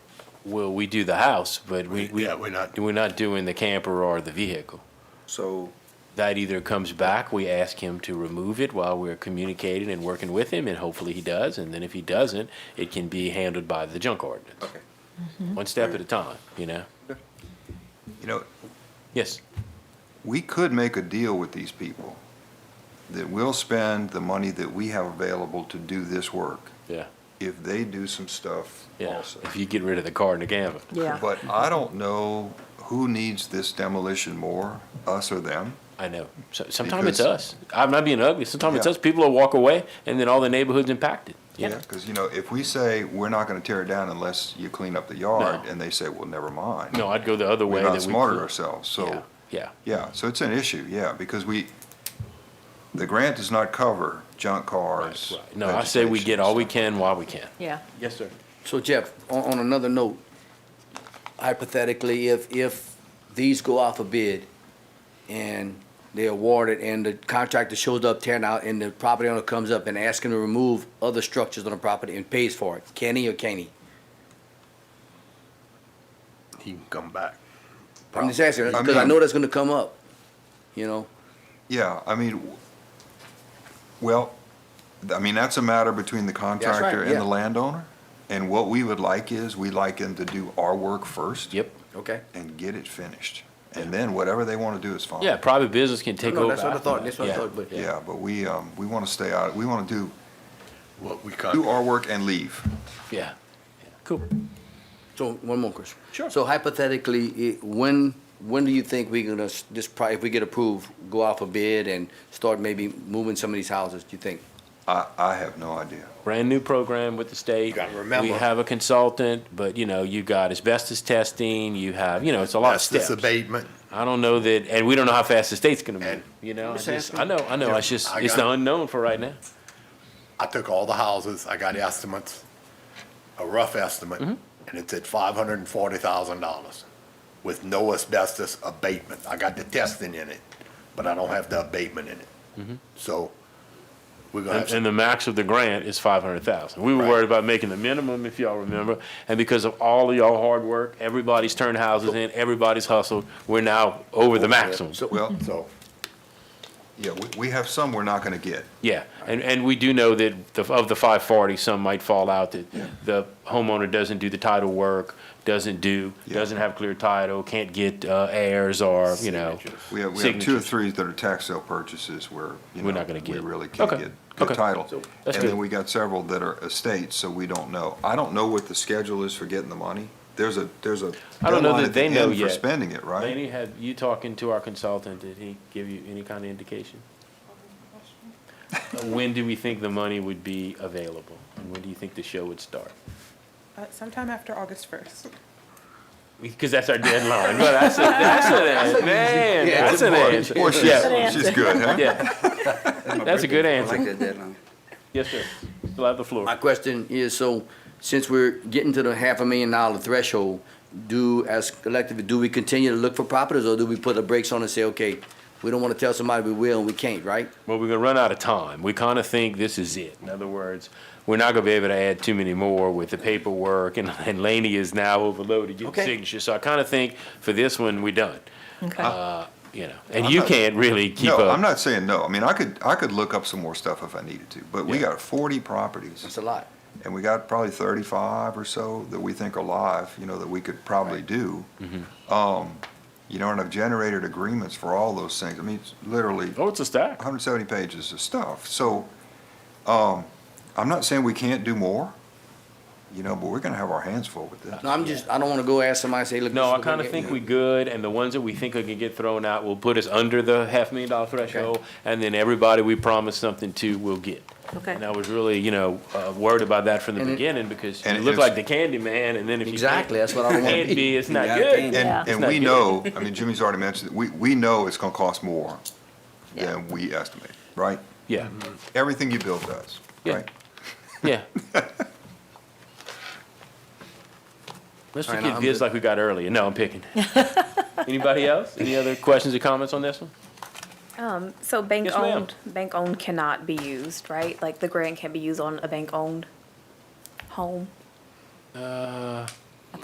well, we do the house, but we, We- we. yeah, we're not- We're not doing the camper or the vehicle. So, That either comes back, we ask him to remove it while we're communicating and working with him, and hopefully he does, and then if he doesn't, it can be handled by the junk ordinance. okay. One step at a time, you know? You know, Yes, we could make a deal with these people that we'll spend the money that we have available to do this work yeah, if they do some stuff yeah. also. If you get rid of the car and the camper. Yeah. But I don't know who needs this demolition more, us or them. I know. So, sometimes it's Because- us. I'm not being ugly. Sometimes it's Yeah. us. People will walk away, and then all the neighborhood's impacted. you know? Because, you know, if we say, we're not going to tear it down unless you clean up the yard, and they say, well, never mind. No, I'd go the other way. We're that not we smarter could- ourselves, Yeah, so, yeah, yeah, so it's an issue, yeah, because we, the grant does not cover junk cars. right. No, I say we get all we can while we can. Yeah. Yes, sir. So Jeff, on, on another note, hypothetically, if, if these go out for bid and they're awarded and the contractor shows up tearing out and the property owner comes up and asks him to remove other structures on the property and pays for it, can he or can't he? He can come back. I'm just asking, I because I mean- know that's gonna come up, you know? Yeah, I mean, w- well, th- I mean, that's a matter between the contractor and yeah. the landowner. And what we would like is, we like them to do our work first. Yep. Okay. And get it finished. And then whatever they want to do is fine. Yeah, private business can take No, over. that's what I after thought, that. that's what I Yeah, thought, but- Yeah, but we, um, we want to stay out, we want to do, What we cut. do our work and leave. Yeah, cool. So, one more question. Sure. So hypothetically, i- when, when do you think we're gonna, s- this, pro- if we get approved, go out for bid and start maybe moving some of these houses, do you think? I, I have no idea. brand new program with the state. gotta remember. We have a consultant, but you know, you got asbestos testing, you have, you know, it's a lot of Asbestos steps. abatement. I don't know that, and we don't know how fast the state's gonna And- move, you know, I Just just, I asking. know, I know, Yeah, it's just, I it's got the unknown for right now. I took all the houses, I got estimates, a rough estimate, and Mm-hmm. it's at five hundred and forty thousand dollars with no asbestos abatement. I got the testing in it, but I don't have the abatement in it. So we're Mm-hmm. gonna And, have, to- and the max of the grant is five hundred thousand. We were Right. worried about making the minimum, if y'all remember, and because of all of y'all hard work, everybody's turned houses in, everybody's hustled, we're now over the maximum. Well, so yeah, we, we have some we're not going to get. Yeah, and, and we do know that the- of the 540, some might fall out that the homeowner doesn't do the title work, doesn't do, Yeah. doesn't have clear title, can't get uh, heirs or, you know. We have, we have two or signatures. three that are tax sale purchases where, you know. We're not gonna We get. really can't Okay. get good Okay. title. And That's then good. we got several that are estates, so we don't know. I don't know what the schedule is for getting the money. There's a, there's a I don't know deadline that at the they know end for yet. spending it, right? Laney, have you talking to our consultant, did he give you any kind of indication? Uh, When do we think the money would be available? And when do you think the show would start? Uh, sometime after August first. Because that's our deadline, but that's a, that's an, an- man, Yeah, that's an Boy, answer. boy, Yeah, she's, she's good, huh? yeah. That's a good answer. that deadline. Yes, sir. Still have the floor. My question is, so since we're getting to the half a million dollar threshold, do, as collective, do we continue to look for properties or do we put the brakes on and say, okay, we don't want to tell somebody we will and we can't, right? Well, we're gonna run out of time. We kinda think this is it. In other words, we're not gonna be able to add too many more with the paperwork and, and Laney is now overloaded getting Okay. signatures. So I kinda think for this one, we done. Okay. Uh, you know, and you can't really keep No, I'm up. not saying no. I mean, I could, I could look up some more stuff if I needed to, but we Yeah. got forty properties. That's a lot. And we got probably thirty-five or so that we think are live, you know, that we could probably do. Um, You know, and I've generated agreements for all those things. I mean, it's literally Oh, it's a stack. hundred seventy pages of stuff. So, um, I'm not saying we can't do more, you know, but we're gonna have our hands full with this. No, I'm just, I don't want to go ask somebody, say, look. this No, is I what we're kinda getting. think we good and the ones that we think are gonna get thrown out will put us under the half million dollar threshold. And then everybody we promise something to will get. Okay. And I was really, you know, uh, worried about that from the And it- beginning because you and it look is- like the candy man and then if you. Exactly, that's what I don't want to Can't be. be, it's not Yeah, good. can't. Yeah. And, and It's we not know, I mean, Jimmy's already mentioned, it. we, we know it's gonna cost more Yeah. than we estimate, right? Yeah, Everything you build does, Yeah. right? yeah. Let's All right, forget I'm bids good. like we got earlier. No, I'm picking. Anybody else? Any other questions or comments on this one? So bank Yes, ma'am. owned, bank owned cannot be used, right? Like the grant can be used on a bank owned home? Uh,